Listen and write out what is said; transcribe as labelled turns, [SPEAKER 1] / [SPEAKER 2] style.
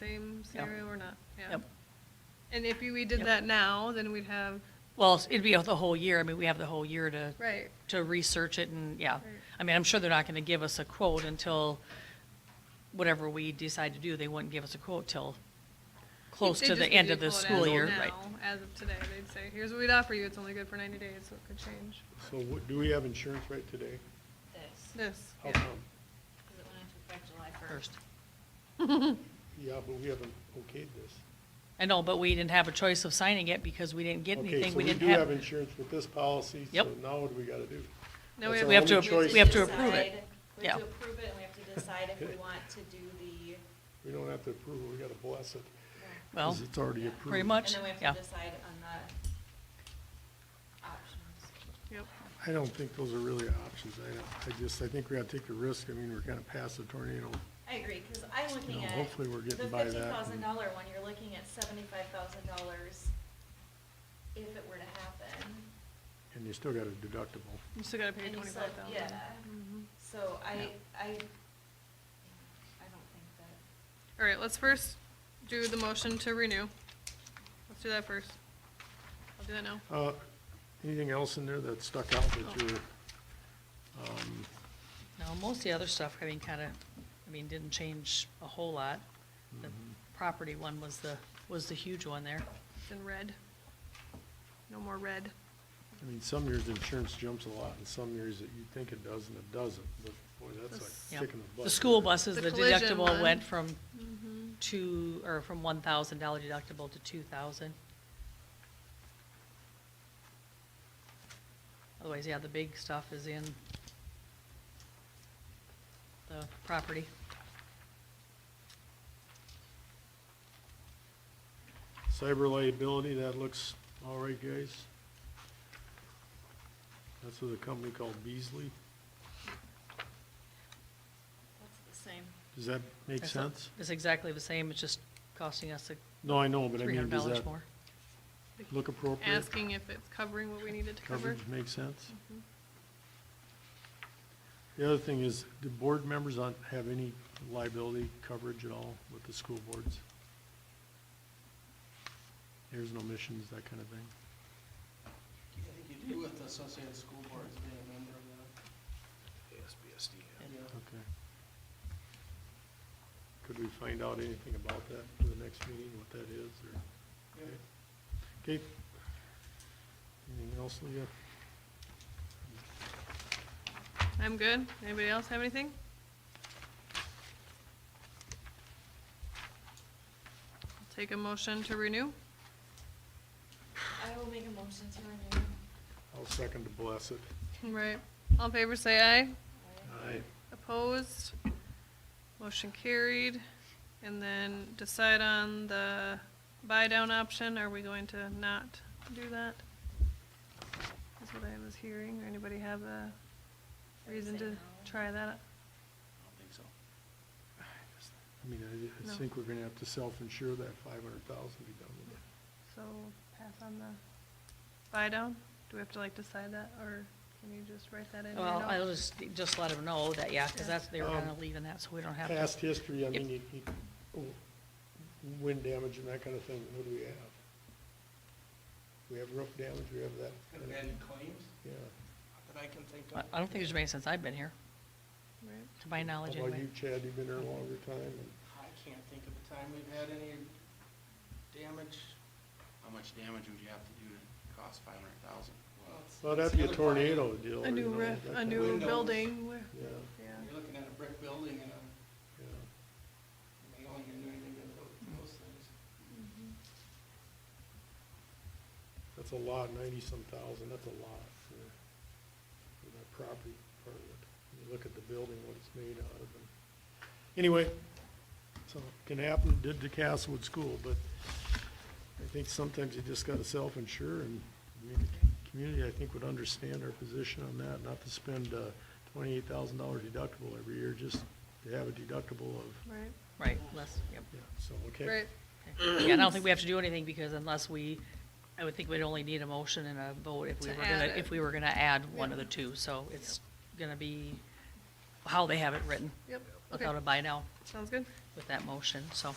[SPEAKER 1] same scenario or not, yeah.
[SPEAKER 2] Yep.
[SPEAKER 1] And if you- we did
[SPEAKER 2] Yep.
[SPEAKER 1] that now, then we'd have,
[SPEAKER 2] Well, it'd be the whole year. I mean, we have the whole year to,
[SPEAKER 1] right,
[SPEAKER 2] to research it and, yeah.
[SPEAKER 1] Right.
[SPEAKER 2] I mean, I'm sure they're not gonna give us a quote until whatever we decide to do, they wouldn't give us a quote till close
[SPEAKER 1] They
[SPEAKER 2] to the
[SPEAKER 1] just give
[SPEAKER 2] end
[SPEAKER 1] you
[SPEAKER 2] of the
[SPEAKER 1] quote
[SPEAKER 2] school
[SPEAKER 1] as of
[SPEAKER 2] year,
[SPEAKER 1] now,
[SPEAKER 2] right?
[SPEAKER 1] As of today, they'd say, here's what we'd offer you, it's only good for ninety days, so it could change.
[SPEAKER 3] So what, do we have insurance right today?
[SPEAKER 4] this,
[SPEAKER 1] This,
[SPEAKER 3] How
[SPEAKER 1] yeah.
[SPEAKER 3] come?
[SPEAKER 4] because it went into effect July
[SPEAKER 2] First.
[SPEAKER 4] first.
[SPEAKER 3] Yeah, but we haven't okayed this.
[SPEAKER 2] I know, but we didn't have a choice of signing it because we didn't get
[SPEAKER 3] Okay,
[SPEAKER 2] anything.
[SPEAKER 3] so
[SPEAKER 2] We
[SPEAKER 3] we
[SPEAKER 2] didn't
[SPEAKER 3] do have
[SPEAKER 2] have,
[SPEAKER 3] insurance with this policy, so
[SPEAKER 2] Yep.
[SPEAKER 3] now what do we gotta do?
[SPEAKER 1] Now
[SPEAKER 3] That's
[SPEAKER 2] we have to,
[SPEAKER 3] only choice.
[SPEAKER 2] we have to approve it.
[SPEAKER 4] Decide- We
[SPEAKER 2] Yeah.
[SPEAKER 4] have to approve it, and we have to decide if we want to do the,
[SPEAKER 3] We don't have to approve it, we gotta bless it. 'cause
[SPEAKER 2] Well,
[SPEAKER 3] it's already approved.
[SPEAKER 2] pretty
[SPEAKER 4] and
[SPEAKER 2] much,
[SPEAKER 4] then we
[SPEAKER 2] yeah.
[SPEAKER 4] have to decide on the options.
[SPEAKER 1] Yep,
[SPEAKER 3] I don't think those are really options. I, don't- I just, I think we gotta take a risk. I mean, we're gonna pass a tornado.
[SPEAKER 4] I agree, because I'm looking
[SPEAKER 3] No,
[SPEAKER 4] at.
[SPEAKER 3] hopefully we're getting by that
[SPEAKER 4] The
[SPEAKER 3] and-
[SPEAKER 4] fifty thousand dollar one, you're looking at seventy-five thousand dollars if it were to happen.
[SPEAKER 3] And you still got a deductible.
[SPEAKER 1] you still gotta pay
[SPEAKER 4] And you still-
[SPEAKER 1] twenty-five thousand. Mm-hmm.
[SPEAKER 4] Yeah, so I, I, I don't think that.
[SPEAKER 1] All right, let's first do the motion to renew. Let's do that first. I'll do that now.
[SPEAKER 3] Uh, anything else in there that stuck out that you're, um,
[SPEAKER 2] No, most of the other stuff, I mean, kind of, I mean, didn't change a whole lot. The
[SPEAKER 3] Mm-hmm.
[SPEAKER 2] property one was the, was the huge one there.
[SPEAKER 1] It's in red. No more red.
[SPEAKER 3] I mean, some years insurance jumps a lot and some years that you think it does and it doesn't, but boy, that's
[SPEAKER 2] Yeah.
[SPEAKER 3] like kicking the butt.
[SPEAKER 2] The school buses,
[SPEAKER 1] The
[SPEAKER 2] the
[SPEAKER 1] collision
[SPEAKER 2] deductible
[SPEAKER 1] one. Mm-hmm.
[SPEAKER 2] went from two, or from one thousand dollar deductible to two thousand. Otherwise, yeah, the big stuff is in the property.
[SPEAKER 3] Cyber liability, that looks all right, guys. That's with a company called Beasley.
[SPEAKER 4] That's the same.
[SPEAKER 3] Does that make
[SPEAKER 2] That's not-
[SPEAKER 3] sense?
[SPEAKER 2] It's exactly the same, it's just costing us
[SPEAKER 3] No, I know, but I
[SPEAKER 2] three
[SPEAKER 3] mean,
[SPEAKER 2] hundred
[SPEAKER 3] does
[SPEAKER 2] dollars
[SPEAKER 3] that
[SPEAKER 2] more.
[SPEAKER 3] look appropriate?
[SPEAKER 1] Asking if it's covering what we needed to cover.
[SPEAKER 3] Coverage makes sense? The other thing is, do board members not have any liability coverage at all with the school boards? There's no missions, that kind of thing?
[SPEAKER 5] I think you do with the Associated School Boards being a member of that. Yeah.
[SPEAKER 3] Okay. Could we find out anything about that for the next meeting, what that is, or?
[SPEAKER 5] Yeah.
[SPEAKER 3] Okay. Anything else, Leah?
[SPEAKER 1] I'm good. Anybody else have anything? Take a motion to renew.
[SPEAKER 4] I will make a motion to renew.
[SPEAKER 3] I'll second to bless it.
[SPEAKER 1] Right. All in favor, say aye.
[SPEAKER 3] Aye.
[SPEAKER 1] Opposed? Motion carried. And then decide on the buy-down option. Are we going to not do that? That's what I was hearing. Anybody have a reason to try that?
[SPEAKER 3] I mean, I,
[SPEAKER 1] No.
[SPEAKER 3] I think we're gonna have to self-insure that five hundred thousand be done with it.
[SPEAKER 1] So pass on the buy-down? Do we have to like decide that, or can you just write that in? right
[SPEAKER 2] Well,
[SPEAKER 1] now?
[SPEAKER 2] I'll just, just let them know that, yeah, because
[SPEAKER 1] Yeah.
[SPEAKER 2] that's, they were
[SPEAKER 3] Um,
[SPEAKER 2] kind of leaving that, so we don't have to.
[SPEAKER 3] Past history, I
[SPEAKER 2] Yep.
[SPEAKER 3] mean, you, you, w- wind damage and that kind of thing, what do we have? We have roof damage, we have that.
[SPEAKER 5] Have you had any claims
[SPEAKER 3] Yeah.
[SPEAKER 5] that I can think
[SPEAKER 2] I
[SPEAKER 5] of?
[SPEAKER 2] I don't think there's been any since I've been here,
[SPEAKER 1] Right.
[SPEAKER 2] to my
[SPEAKER 3] How
[SPEAKER 2] knowledge
[SPEAKER 3] about
[SPEAKER 2] anyway.
[SPEAKER 3] you, Chad? You've been here a longer time. and-
[SPEAKER 5] I can't think of a time we've had any damage.
[SPEAKER 6] How much damage would you have to do to cost five hundred thousand?
[SPEAKER 5] Well, it's-
[SPEAKER 3] Well,
[SPEAKER 5] it's
[SPEAKER 3] that'd be
[SPEAKER 5] the
[SPEAKER 3] a
[SPEAKER 5] other
[SPEAKER 3] tornado deal.
[SPEAKER 1] A
[SPEAKER 3] you
[SPEAKER 1] new
[SPEAKER 3] know,
[SPEAKER 1] roof,
[SPEAKER 3] that
[SPEAKER 1] a
[SPEAKER 3] kind of-
[SPEAKER 1] new
[SPEAKER 5] Windows.
[SPEAKER 1] building, where-
[SPEAKER 3] Yeah,
[SPEAKER 1] yeah.
[SPEAKER 5] part. You're looking at a brick building and, um,
[SPEAKER 3] yeah.
[SPEAKER 5] they don't even do anything to those- those things.
[SPEAKER 3] That's a lot, ninety-some thousand, that's a lot for, for that property part of it. When You look at the building, what it's made out of, and, anyway, so, can happen, it did to Castlewood School, but I think sometimes you just gotta self-insure, and, I mean, the community, I think, would understand our position on that, not to spend, uh, twenty-eight thousand dollar deductible every year, just to have a deductible of,
[SPEAKER 1] Right,
[SPEAKER 2] Right, less, yep.
[SPEAKER 3] yeah, so, okay.
[SPEAKER 1] right.
[SPEAKER 2] Yeah, I don't think we have to do anything, because unless we, I would think we'd only need a motion and a vote if we
[SPEAKER 1] To
[SPEAKER 2] were
[SPEAKER 1] add
[SPEAKER 2] gonna,
[SPEAKER 1] it.
[SPEAKER 2] if we were gonna add one of
[SPEAKER 1] Yeah.
[SPEAKER 2] the two, so it's gonna be how they have it written,
[SPEAKER 1] Yep, okay,
[SPEAKER 2] without a buy now
[SPEAKER 1] sounds good.
[SPEAKER 2] with that motion, so.